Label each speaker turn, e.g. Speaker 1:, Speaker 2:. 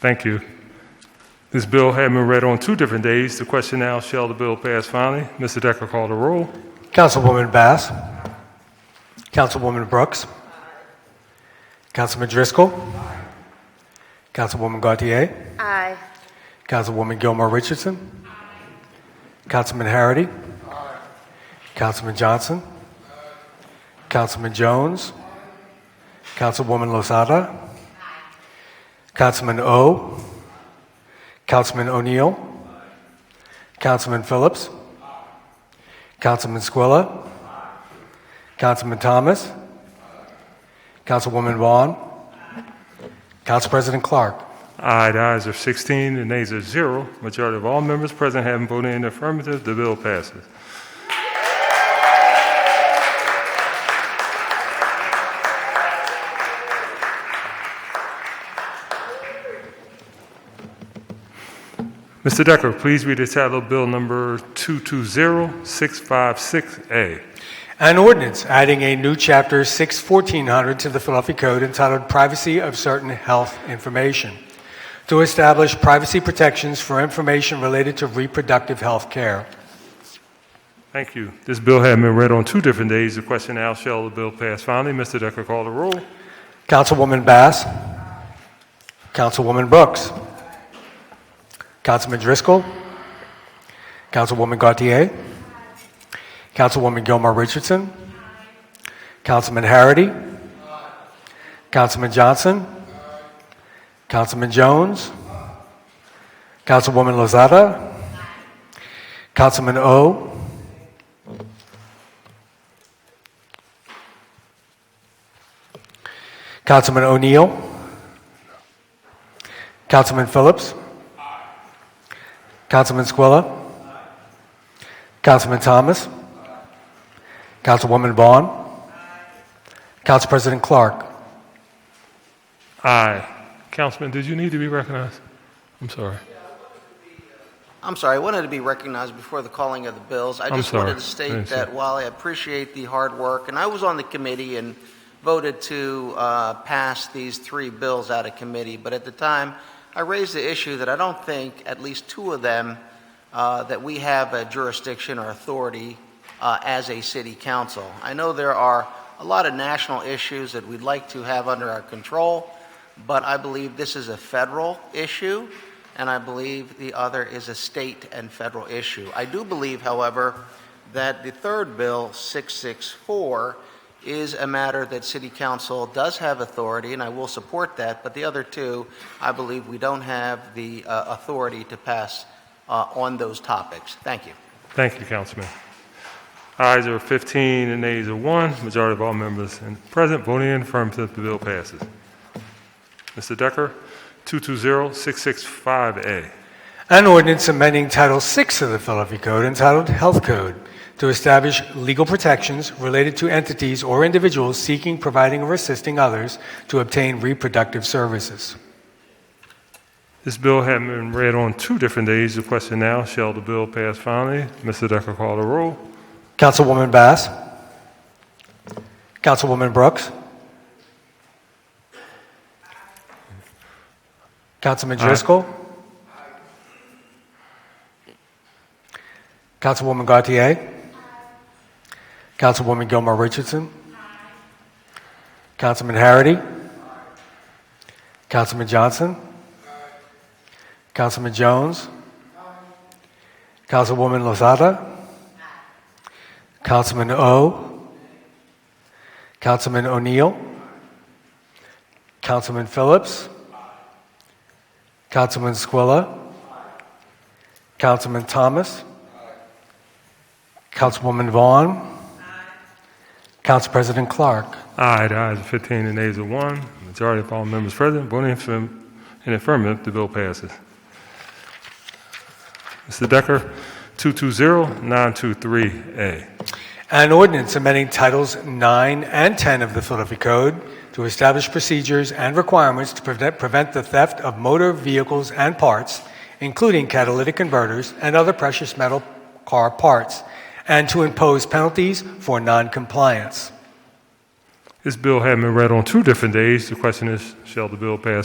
Speaker 1: Thank you. This bill had been read on two different days. The question now, shall the bill pass finally? Mr. Decker called the roll.
Speaker 2: Councilwoman Bass. Councilwoman Brooks. Councilman Driscoll. Councilwoman Gautier.
Speaker 3: Aye.
Speaker 2: Councilwoman Gilmore Richardson. Councilman Harity. Councilman Johnson. Councilman Jones. Councilwoman Lozada. Councilman O. Councilman O'Neill. Councilman Phillips. Councilman Squilla. Councilman Thomas. Councilwoman Vaughn. Council President Clark.
Speaker 1: Aye, the ayes are 16, the nays are 0. Majority of all members present having voted in the affirmative, the bill passes. Mr. Decker, please read the title of Bill Number 220656A.
Speaker 2: An ordinance adding a new chapter 6 1400 to the Philadelphia Code entitled Privacy of Certain Health Information to establish privacy protections for information related to reproductive health care.
Speaker 1: Thank you. This bill had been read on two different days. The question now, shall the bill pass finally? Mr. Decker call the roll.
Speaker 2: Councilwoman Bass. Councilwoman Brooks. Councilman Driscoll. Councilwoman Gautier. Councilwoman Gilmar Richardson. Councilman Harity. Councilman Johnson. Councilman Jones. Councilwoman Lozada. Councilman O. Councilman O'Neill. Councilman Phillips. Councilman Squilla. Councilman Thomas. Councilwoman Vaughn. Council President Clark.
Speaker 1: Aye. Councilman, did you need to be recognized? I'm sorry.
Speaker 4: I'm sorry, I wanted to be recognized before the calling of the bills. I
Speaker 1: I'm
Speaker 4: just
Speaker 1: sorry.
Speaker 4: wanted to
Speaker 1: I didn't
Speaker 4: state
Speaker 1: see
Speaker 4: that
Speaker 1: it.
Speaker 4: while I appreciate the hard work, and I was on the committee and voted to uh, pass these three bills out of committee, but at the time, I raised the issue that I don't think at least two of them uh, that we have a jurisdiction or authority uh, as a city council. I know there are a lot of national issues that we'd like to have under our control, but I believe this is a federal issue, and I believe the other is a state and federal issue. I do believe, however, that the third bill, 664, is a matter that City Council does have authority, and I will support that, but the other two, I believe we don't have the uh, authority to pass uh, on those topics. Thank you.
Speaker 1: Thank you, Councilman. Ayes are 15 and nays are 1. Majority of all members in- present voting in affirmative, the bill passes. Mr. Decker, 220665A.
Speaker 2: An ordinance amending Title VI of the Philadelphia Code entitled Health Code to establish legal protections related to entities or individuals seeking, providing, or assisting others to obtain reproductive services.
Speaker 1: This bill had been read on two different days. The question now, shall the bill pass finally? Mr. Decker call the roll.
Speaker 2: Councilwoman Bass. Councilwoman Brooks. Councilman Driscoll. Councilwoman Gautier. Councilwoman Gilmore Richardson. Councilman Harity. Councilman Johnson. Councilman Jones. Councilwoman Lozada. Councilman O. Councilman O'Neill. Councilman Phillips. Councilman Squilla. Councilman Thomas. Councilwoman Vaughn. Council President Clark.
Speaker 1: Aye, the ayes are 15 and nays are 1. Majority of all members present voting in affirm- in affirmative, the bill passes. Mr. Decker, 220923A.
Speaker 2: An ordinance amending Titles 9 and 10 of the Philadelphia Code to establish procedures and requirements to prevent, prevent the theft of motor vehicles and parts, including catalytic converters and other precious metal car parts, and to impose penalties for noncompliance.
Speaker 1: This bill had been read on two different days. The question is, shall the bill pass